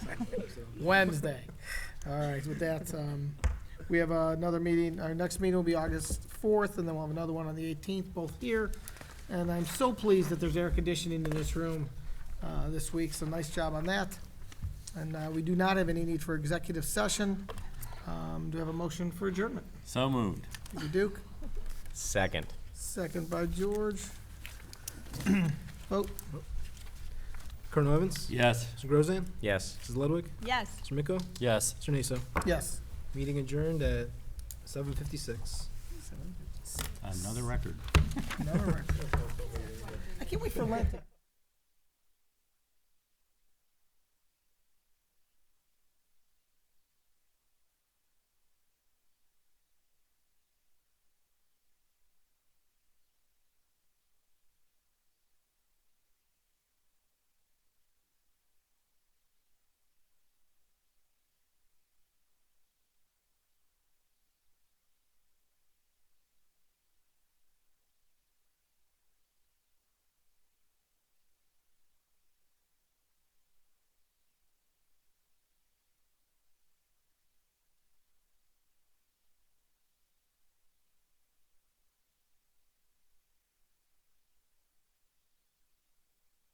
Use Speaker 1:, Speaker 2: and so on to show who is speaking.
Speaker 1: Wednesday. All right, with that, um, we have uh, another meeting, our next meeting will be August fourth, and then we'll have another one on the eighteenth, both here. And I'm so pleased that there's air conditioning in this room, uh, this week, so nice job on that. And, uh, we do not have any need for executive session. Um, do we have a motion for adjournment?
Speaker 2: So moved.
Speaker 1: Peter Duke,
Speaker 3: Second.
Speaker 1: second by George. Vote.
Speaker 4: Colonel Evans?
Speaker 2: Yes.
Speaker 4: Mr. Grozan?
Speaker 3: Yes.
Speaker 4: Mrs. Ludwig?
Speaker 5: Yes.
Speaker 4: Mr. Miko?
Speaker 2: Yes.
Speaker 4: Mr. Naso?
Speaker 1: Yes.
Speaker 4: Meeting adjourned at seven fifty-six.
Speaker 2: Another record.
Speaker 1: Another record. I can't wait for Lent.